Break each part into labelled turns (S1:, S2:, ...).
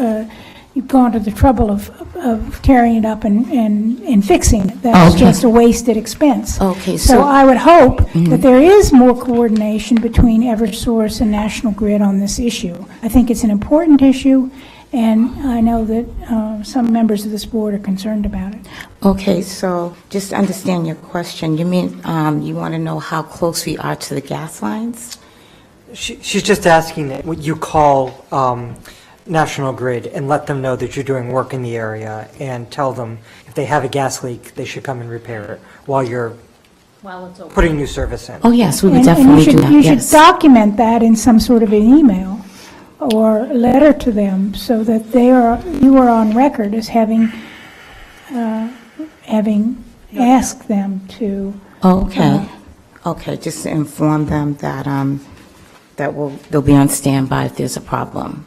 S1: uh, gone to the trouble of, of tearing it up and, and, and fixing it. That's
S2: Okay.
S1: just a wasted expense.
S2: Okay,
S1: So
S2: so- Mm-hmm.
S1: I would hope that there is more coordination between Eversource and National Grid on this issue. I think it's an important issue, and I know that uh, some members of this board are concerned about it.
S2: Okay, so just to understand your question. You mean um, you want to know how close we are to the gas lines?
S3: She- She's just asking that what you call um, National Grid and let them know that you're doing work in the area and tell them if they have a gas leak, they should come and repair it while you're putting new service in.
S2: Oh, yes, we would
S1: And- and you
S2: definitely do
S1: should-
S2: that,
S1: You should
S2: yes.
S1: document that in some sort of an email or letter to them so that they are, you are on record as having, uh, having asked them to,
S2: Oh, Okay,
S1: Uh-huh.
S2: okay, just to inform them that, um, that will, they'll be on standby if there's a problem.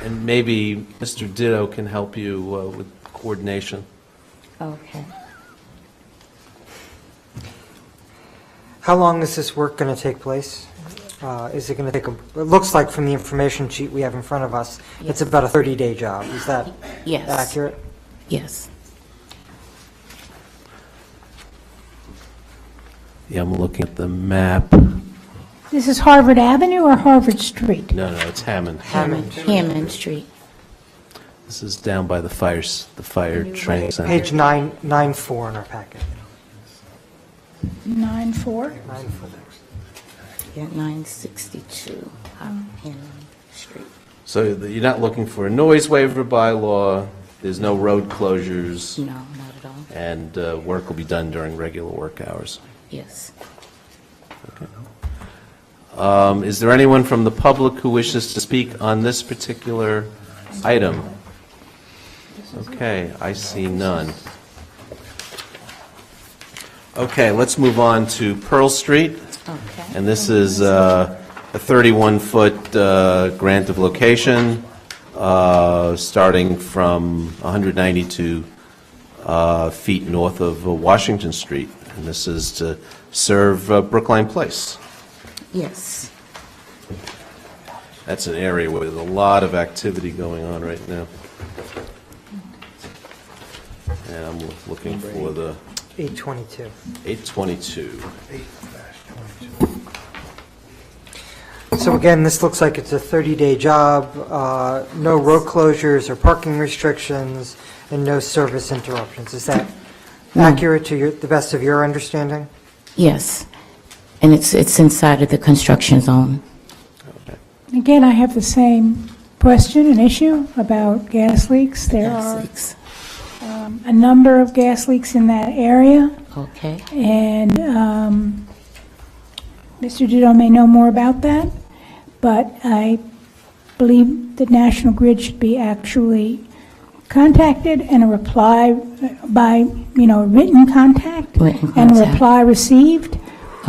S4: And maybe Mr. Ditto can help you uh, with coordination.
S2: Okay.
S3: How long is this work going to take place? Uh, Is it going to take, a? it looks like from the information sheet we have in front of us, it's about a 30-day job. Is that
S2: Yes.
S3: accurate?
S2: Yes.
S4: Yeah, I'm looking at the map.
S1: this is Harvard Avenue or Harvard Street?
S4: No, no, it's Hammond.
S2: Hammond, Hammond Street.
S4: This is down by the fires, the fire training
S3: Page
S4: center.
S3: nine nine four in our packet.
S1: Nine four.
S3: Nine four.
S2: Yeah, 962 Hammond Street.
S4: So the- you're not looking for a noise waiver bylaw, there's no road closures,
S2: No, not at all.
S4: and uh, work will be done during regular work hours.
S2: Yes.
S4: Um, Is there anyone from the public who wishes to speak on this particular item? Okay, I see none. Okay, let's move on to Pearl Street.
S2: Okay.
S4: And this is uh, a 31-foot grant of location, uh, starting from 192 uh, feet north of uh, Washington Street. And this is to serve uh, Brookline Place.
S2: Yes.
S4: That's an area where there's a lot of activity going on right now. And I'm looking for the
S3: 822.
S4: 822.
S3: So again, this looks like it's a 30-day job, uh, no road closures or parking restrictions, and no service interruptions. Is that accurate to your, the best of your understanding?
S2: Yes. And it's, it's inside of the construction zone.
S1: Again, I have the same question and issue about gas leaks. There are
S2: Yes,
S1: um, a number of gas leaks in that area.
S2: it's- Okay.
S1: And um, Mr. Ditto may know more about that, but I believe that National Grid should be actually contacted and a reply by, you know, written contact.
S2: Written
S1: And a
S2: contact.
S1: reply received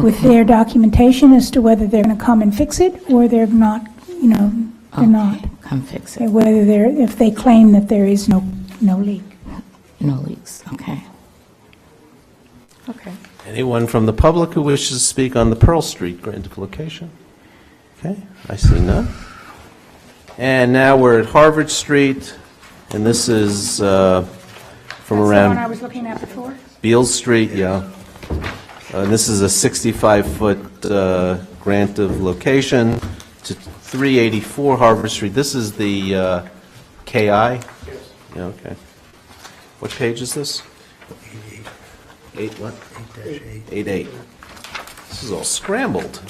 S1: with
S2: Okay.
S1: their documentation as to whether they're going to come and fix it or they're not, you know, they're not.
S2: Okay, Come fix it.
S1: Whether they're, if they claim that there is no, no leak.
S2: No leaks, okay. Okay.
S4: Anyone from the public who wishes to speak on the Pearl Street grant of location? Okay, I see none. And now we're at Harvard Street, and this is uh, from around
S1: was looking at before?
S4: Beale Street, yeah. And this is a 65-foot uh, grant of location to 384 Harvard Street. This is the uh, KI? Yes. Yeah, okay. What page is this? Eight what? Eight eight. This is all scrambled.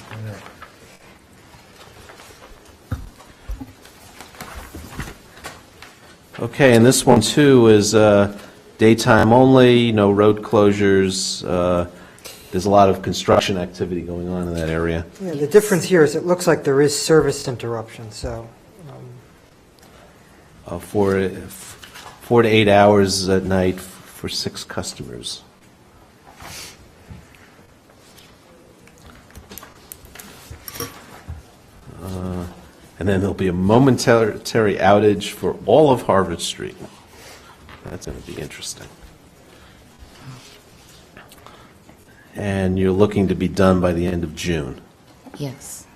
S4: Okay, and this one too is uh, daytime only, no road closures. uh, There's a lot of construction activity going on in that area.
S3: Yeah, The difference here is it looks like there is service interruption, so
S4: Uh, Four, f- four to eight hours at night f- for six customers. Uh, And then there'll be a momentary outage for all of Harvard Street. That's going to be interesting. And you're looking to be done by the end of June.
S2: Yes.